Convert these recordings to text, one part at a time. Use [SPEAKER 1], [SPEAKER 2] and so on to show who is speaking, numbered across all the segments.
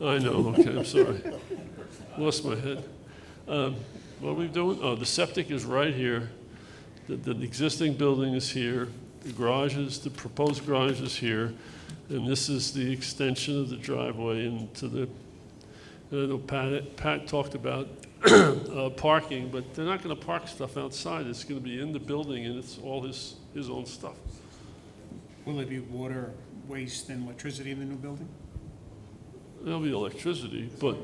[SPEAKER 1] I know, okay, I'm sorry. Lost my head. Um, What are we doing? Oh, the septic is right here. The, the existing building is here. The garage is, the proposed garage is here. And this is the extension of the driveway into the, and I know Pat, Pat talked about uh, parking, but they're not going to park stuff outside. It's going to be in the building and it's all his, his own stuff.
[SPEAKER 2] Will there be water, waste, and electricity in the new building?
[SPEAKER 1] There'll be electricity, but,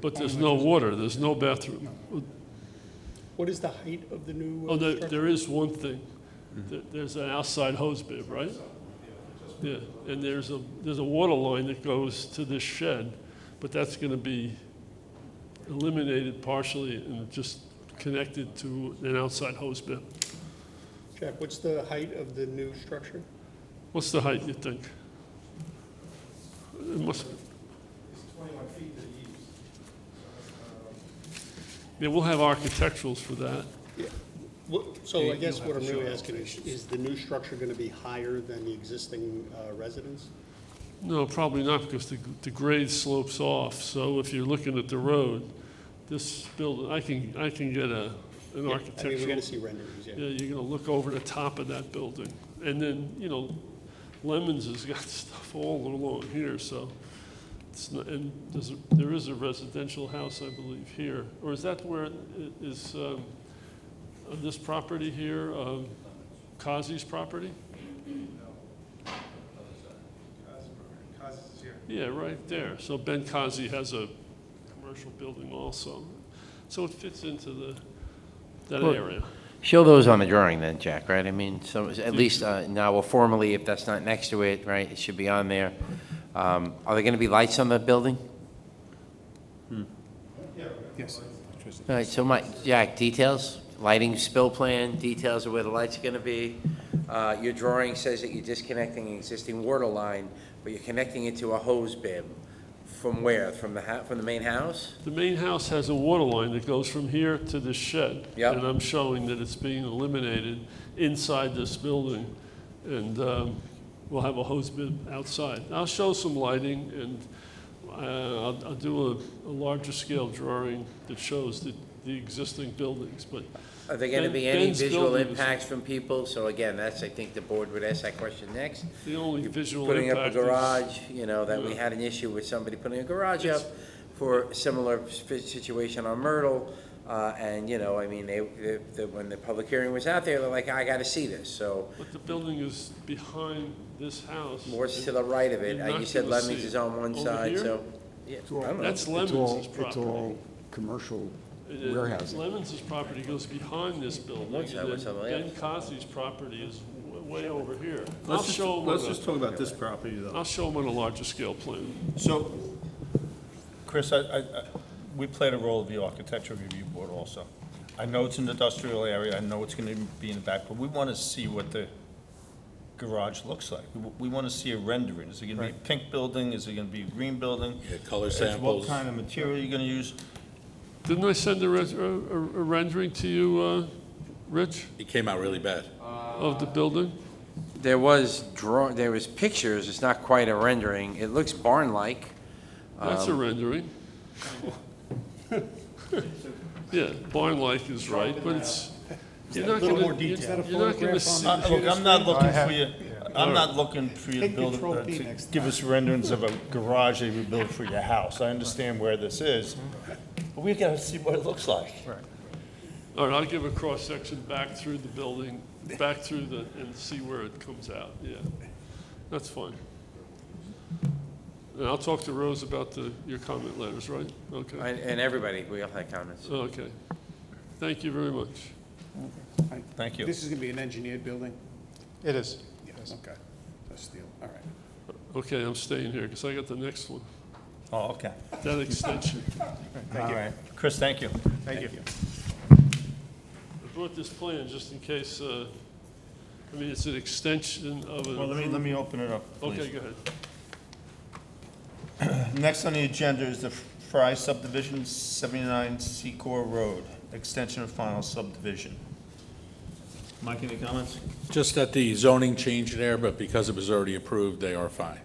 [SPEAKER 1] but there's no water, there's no bathroom.
[SPEAKER 3] What is the height of the new? uh,
[SPEAKER 1] Oh, there,
[SPEAKER 3] structure?
[SPEAKER 1] there is one thing. There- There's an outside hose bib, right? Yeah, and there's a, there's a water line that goes to this shed, but that's going to be eliminated partially and just connected to an outside hose bib.
[SPEAKER 3] Jack, what's the height of the new structure?
[SPEAKER 1] What's the height, you think? It must,
[SPEAKER 4] It's 21 feet to the east.
[SPEAKER 1] yeah, we'll have architecturals for that.
[SPEAKER 3] What- So
[SPEAKER 2] You-
[SPEAKER 3] I guess
[SPEAKER 2] you'll
[SPEAKER 3] what
[SPEAKER 2] have
[SPEAKER 3] I'm
[SPEAKER 2] to
[SPEAKER 3] really
[SPEAKER 2] show
[SPEAKER 3] asking is, is the new structure going to be higher than the existing uh, residence?
[SPEAKER 1] No, probably not, because the, the grade slopes off, so if you're looking at the road, this building, I can, I can get a, an
[SPEAKER 3] Yeah, I mean, we're going
[SPEAKER 1] architectural.
[SPEAKER 3] to see renderings,
[SPEAKER 1] Yeah,
[SPEAKER 3] yeah.
[SPEAKER 1] you're gonna look over the top of that building, and then, you know, Lemons has got stuff all along here, so. It's not, and there's, a- there is a residential house, I believe, here, or is that where it is, um, on this property here, um, Kazi's property?
[SPEAKER 4] Cause is here.
[SPEAKER 1] Yeah, right there. So Ben Kazi has a commercial building also. So it fits into the, that
[SPEAKER 5] Well,
[SPEAKER 1] area.
[SPEAKER 5] Show those on the drawing then, Jack, right? I mean, so, at least, uh, now, well, formally, if that's not next to it, right, it should be on there. Um, Are there gonna be lights on the building?
[SPEAKER 2] Yes.
[SPEAKER 5] All right, so my, Jack, details, lighting spill plan, details of where the lights are gonna be. Uh, Your drawing says that you're disconnecting an existing water line, but you're connecting it to a hose bib. From where? From the hou- from the main house?
[SPEAKER 1] The main house has a water line that goes from here to the shed.
[SPEAKER 5] Yeah.
[SPEAKER 1] And I'm showing that it's being eliminated inside this building. And um, we'll have a hose bib outside. I'll show some lighting and uh, I'll I'll do a- a larger scale drawing that shows the the existing buildings. But
[SPEAKER 5] Are there gonna
[SPEAKER 1] Ben-
[SPEAKER 5] be any
[SPEAKER 1] Ben's
[SPEAKER 5] visual
[SPEAKER 1] building is-
[SPEAKER 5] impacts from people? So again, that's, I think the board would ask that question next.
[SPEAKER 1] the only visual
[SPEAKER 5] putting
[SPEAKER 1] impact is...
[SPEAKER 5] up a garage, you know, that we had an issue with somebody putting a garage up for a similar sp- situation on Myrtle. Uh, and, you know, I mean, they, they, the- when the public hearing was out there, they're like, I gotta see this, so
[SPEAKER 1] But the building is behind this house.
[SPEAKER 5] more to the right of it.
[SPEAKER 1] You're
[SPEAKER 5] Uh, You
[SPEAKER 1] not
[SPEAKER 5] said
[SPEAKER 1] gonna
[SPEAKER 5] Lemmings
[SPEAKER 1] see
[SPEAKER 5] is
[SPEAKER 1] it.
[SPEAKER 5] on one
[SPEAKER 1] Over
[SPEAKER 5] side,
[SPEAKER 1] here?
[SPEAKER 5] so. yeah, I don't know.
[SPEAKER 1] That's
[SPEAKER 6] It's all-
[SPEAKER 1] Lemons'
[SPEAKER 6] It's
[SPEAKER 1] property.
[SPEAKER 6] all commercial
[SPEAKER 1] It- it-
[SPEAKER 6] warehousing.
[SPEAKER 1] Lemons' property goes behind this building,
[SPEAKER 5] Looks that
[SPEAKER 1] and
[SPEAKER 5] way,
[SPEAKER 1] then
[SPEAKER 5] something
[SPEAKER 1] Ben
[SPEAKER 5] else.
[SPEAKER 1] Cosby's property is w- way over here. I'll
[SPEAKER 7] Let's just,
[SPEAKER 1] show
[SPEAKER 7] let's just
[SPEAKER 1] them,
[SPEAKER 7] talk about this property, though.
[SPEAKER 1] I'll show them on a larger scale plan.
[SPEAKER 7] So, Chris, I, I, I- we played a role of the architecture review board also. I know it's an industrial area, I know it's gonna be in the back, but we wanna see what the garage looks like. We- We wanna see a rendering. Is it gonna be a pink building? Is it gonna be a green building?
[SPEAKER 8] Yeah, color
[SPEAKER 7] Is What
[SPEAKER 8] samples.
[SPEAKER 7] kind of material you're gonna use?
[SPEAKER 1] Didn't I send a res- a- a- a rendering to you, uh, Rich,
[SPEAKER 8] It came out really bad.
[SPEAKER 1] of the building?
[SPEAKER 5] There was draw, there was pictures, it's not quite a rendering. It looks barn-like.
[SPEAKER 1] That's
[SPEAKER 2] Um,
[SPEAKER 1] a rendering. Yeah, barn-like is right, but it's, you're not
[SPEAKER 2] little
[SPEAKER 1] gonna,
[SPEAKER 2] more
[SPEAKER 1] you're
[SPEAKER 2] detail.
[SPEAKER 1] you're not gonna see.
[SPEAKER 7] Uh, Look, I'm not looking for you, I'm
[SPEAKER 1] Alright.
[SPEAKER 7] not looking for you to
[SPEAKER 2] Take
[SPEAKER 7] build,
[SPEAKER 2] Control
[SPEAKER 7] a-
[SPEAKER 2] P
[SPEAKER 7] to
[SPEAKER 2] next
[SPEAKER 7] give us renderings of a garage that you build for your house. I understand where this is, but we gotta see what it looks like.
[SPEAKER 1] All right, I'll give a cross-section back through the building, back through the, and see where it comes out, yeah. That's fine. And I'll talk to Rose about the, your comment letters, right? Okay,
[SPEAKER 5] And, and everybody, we all had comments.
[SPEAKER 1] okay. Thank you very much.
[SPEAKER 7] Thank you.
[SPEAKER 2] This is gonna be an engineered building?
[SPEAKER 4] It is.
[SPEAKER 2] Yes. Okay, that's steel, all right.
[SPEAKER 1] Okay, I'm staying here, because I got the next one,
[SPEAKER 7] Oh, okay.
[SPEAKER 1] that extension.
[SPEAKER 7] All right. Chris, thank you.
[SPEAKER 2] Thank you.
[SPEAKER 1] I brought this plan just in case, uh, I mean, it's an extension of
[SPEAKER 7] Well, let me, let
[SPEAKER 1] an.
[SPEAKER 7] me open it up,
[SPEAKER 1] Okay,
[SPEAKER 7] please.
[SPEAKER 1] go ahead.
[SPEAKER 7] Next on the agenda is the Fry subdivision, 79 Secor Road, extension of final subdivision. Mike, any comments?
[SPEAKER 8] Just that the zoning changed there, but because it was already approved, they are fine.